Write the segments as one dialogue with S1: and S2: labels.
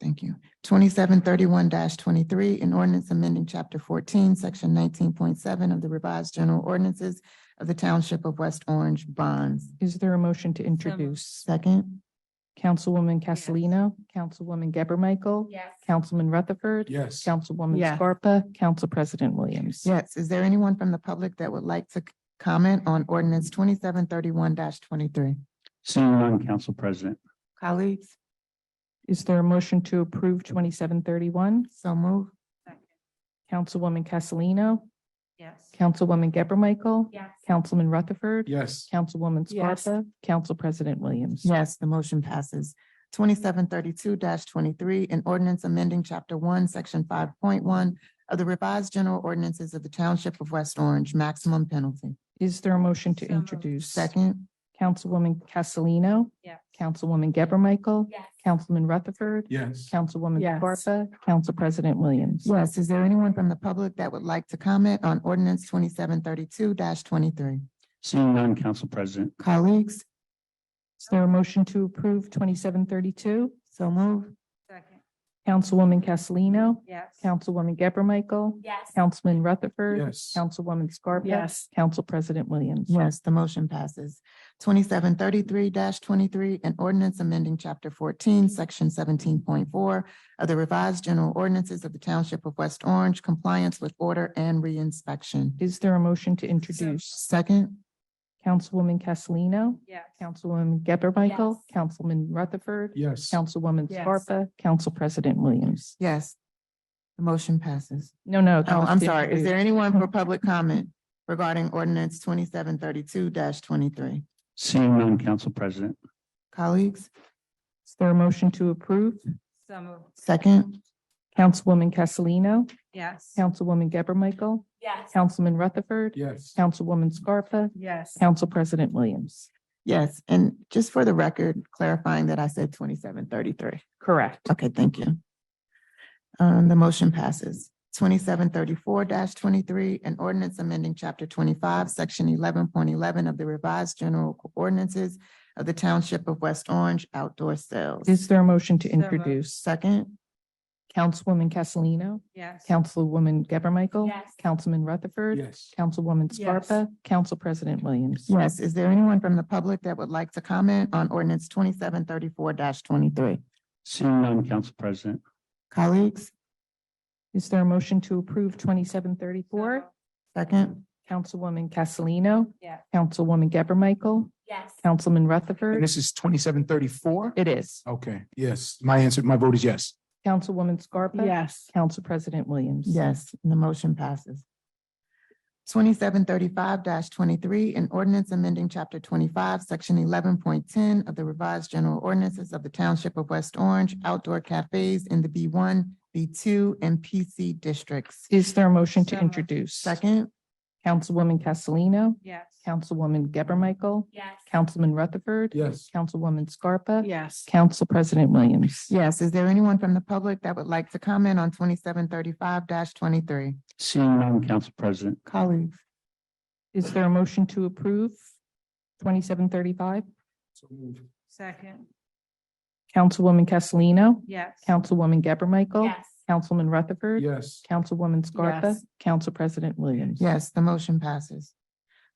S1: Thank you. Twenty-seven thirty-one twenty-three, an ordinance amending chapter fourteen, section nineteen point seven of the revised general ordinances of the Township of West Orange bonds.
S2: Is there a motion to introduce?
S1: Second,
S2: Councilwoman
S3: Yes.
S2: Castellino, Councilwoman Geber Michael,
S3: Yes.
S2: Councilman Rutherford.
S4: Yes.
S2: Councilwoman
S3: Yes.
S2: Scarpa, Council President Williams.
S1: yes, is there anyone from the public that would like to c- comment on ordinance twenty-seven thirty-one twenty-three?
S5: Seeing none, Council President.
S1: Colleagues,
S2: Is there a motion to approve twenty-seven thirty-one?
S1: so move.
S2: Councilwoman Castellino,
S3: Yes.
S2: Councilwoman Geber Michael,
S3: Yes.
S2: Councilman Rutherford.
S4: Yes.
S2: Councilwoman
S3: Yes.
S2: Scarpa, Council President Williams.
S1: Yes, the motion passes. Twenty-seven thirty-two twenty-three, an ordinance amending chapter one, section five point one of the revised general ordinances of the Township of West Orange, maximum penalty.
S2: Is there a motion to
S3: So moved.
S2: introduce?
S1: Second,
S2: Councilwoman Castellino,
S3: Yes.
S2: Councilwoman Geber Michael,
S3: Yes.
S2: Councilman Rutherford,
S4: Yes.
S2: Councilwoman
S3: Yes.
S2: Scarpa, Council President Williams.
S1: yes, is there anyone from the public that would like to comment on ordinance twenty-seven thirty-two twenty-three?
S5: Seeing none, Council President.
S1: Colleagues,
S2: Is there a motion to approve twenty-seven thirty-two?
S1: so move.
S3: Second.
S2: Councilwoman Castellino,
S3: Yes.
S2: Councilwoman Geber Michael,
S3: Yes.
S2: Councilman Rutherford,
S4: Yes.
S2: Councilwoman Scarpa.
S3: Yes.
S2: Council President Williams.
S1: Yes, the motion passes. Twenty-seven thirty-three twenty-three, an ordinance amending chapter fourteen, section seventeen point four of the revised general ordinances of the Township of West Orange, compliance with order and reinspection.
S2: Is there a motion to introduce?
S1: Second,
S2: Councilwoman Castellino,
S3: Yes.
S2: Councilwoman Geber Michael,
S3: Yes.
S2: Councilman Rutherford,
S4: Yes.
S2: Councilwoman
S3: Yes.
S2: Scarpa, Council President Williams.
S1: yes, the motion passes.
S2: No, no. that
S1: Oh,
S2: was
S1: I'm
S2: to
S1: sorry. Is
S2: introduce.
S1: there anyone for public comment regarding ordinance twenty-seven thirty-two twenty-three?
S5: Seeing none, Council President.
S1: Colleagues,
S2: Is there a motion to approve?
S3: So moved.
S1: second,
S2: Councilwoman Castellino,
S3: Yes.
S2: Councilwoman Geber Michael,
S3: Yes.
S2: Councilman Rutherford,
S4: Yes.
S2: Councilwoman Scarpa,
S3: Yes.
S2: Council President Williams.
S1: yes, and just for the record, clarifying that I said twenty-seven thirty-three.
S2: Correct.
S1: Okay, thank you. Um, the motion passes. Twenty-seven thirty-four twenty-three, an ordinance amending chapter twenty-five, section eleven point eleven of the revised general ordinances of the Township of West Orange outdoor sales.
S2: Is there a motion to
S3: So moved.
S2: introduce?
S1: Second,
S2: Councilwoman Castellino,
S3: Yes.
S2: Councilwoman Geber Michael,
S3: Yes.
S2: Councilman Rutherford,
S4: Yes.
S2: Councilwoman
S3: Yes.
S2: Scarpa, Council President Williams.
S1: yes, is there anyone from the public that would like to comment on ordinance twenty-seven thirty-four twenty-three?
S5: Seeing none, Council President.
S1: Colleagues,
S2: Is there a motion to approve twenty-seven thirty-four?
S1: second,
S2: Councilwoman Castellino,
S3: Yeah.
S2: Councilwoman Geber Michael,
S3: Yes.
S2: Councilman
S4: And
S2: Rutherford.
S4: this is twenty-seven thirty-four?
S2: It is.
S4: Okay, yes. My answer, my vote is yes.
S2: Councilwoman Scarpa.
S3: Yes.
S2: Council President Williams.
S1: Yes, and the motion passes. Twenty-seven thirty-five twenty-three, an ordinance amending chapter twenty-five, section eleven point ten of the revised general ordinances of the Township of West Orange, outdoor cafes in the B one, B two, and PC districts.
S2: Is there a motion
S3: So
S2: to
S3: moved.
S2: introduce?
S1: Second,
S2: Councilwoman Castellino,
S3: Yes.
S2: Councilwoman Geber Michael,
S3: Yes.
S2: Councilman Rutherford.
S4: Yes.
S2: Councilwoman Scarpa.
S3: Yes.
S2: Council President Williams.
S1: yes, is there anyone from the public that would like to comment on twenty-seven thirty-five twenty-three?
S5: Seeing none, Council President.
S1: Colleagues,
S2: Is there a motion to approve twenty-seven thirty-five?
S4: So moved.
S3: Second.
S2: Councilwoman Castellino,
S3: Yes.
S2: Councilwoman Geber Michael.
S3: Yes.
S2: Councilman Rutherford.
S4: Yes.
S2: Councilwoman Scarpa.
S3: Yes.
S2: Council President Williams.
S1: yes, the motion passes.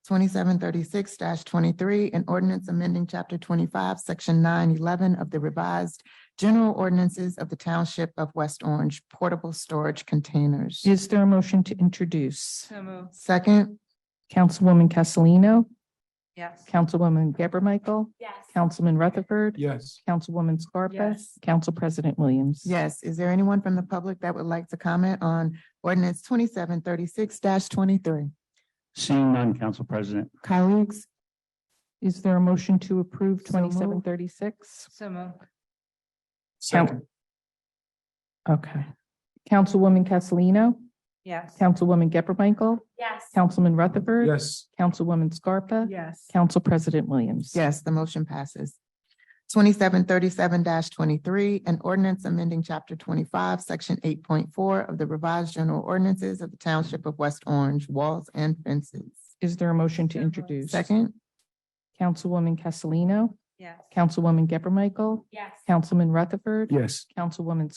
S1: Twenty-seven thirty-six twenty-three, an ordinance amending chapter twenty-five, section nine eleven of the revised general ordinances of the Township of West Orange, portable storage containers.
S2: Is there a motion to introduce?
S3: So moved.
S1: Second,
S2: Councilwoman Castellino,
S3: Yes.
S2: Councilwoman Geber Michael,
S3: Yes.
S2: Councilman Rutherford.
S4: Yes.
S2: Councilwoman Scarpa.
S3: Yes.
S2: Council President Williams.
S1: yes, is there anyone from the public that would like to comment on ordinance twenty-seven thirty-six twenty-three?
S5: Seeing none, Council President.
S1: Colleagues,
S2: Is there a motion to approve
S1: So moved.
S2: twenty-seven thirty-six?
S3: So moved.
S4: Second.
S2: Okay. Councilwoman Castellino,
S3: Yes.
S2: Councilwoman Geber Michael,
S3: Yes.
S2: Councilman Rutherford.
S4: Yes.
S2: Councilwoman Scarpa.
S3: Yes.
S2: Council President Williams.
S1: Yes, the motion passes. Twenty-seven thirty-seven twenty-three, an ordinance amending chapter twenty-five, section eight point four of the revised general ordinances of the Township of West Orange, walls and fences.
S2: Is there a motion to
S3: So moved.
S2: introduce?
S1: Second,
S2: Councilwoman Castellino,
S3: Yes.
S2: Councilwoman Geber Michael,
S3: Yes.
S2: Councilman Rutherford.
S4: Yes.
S2: Councilwoman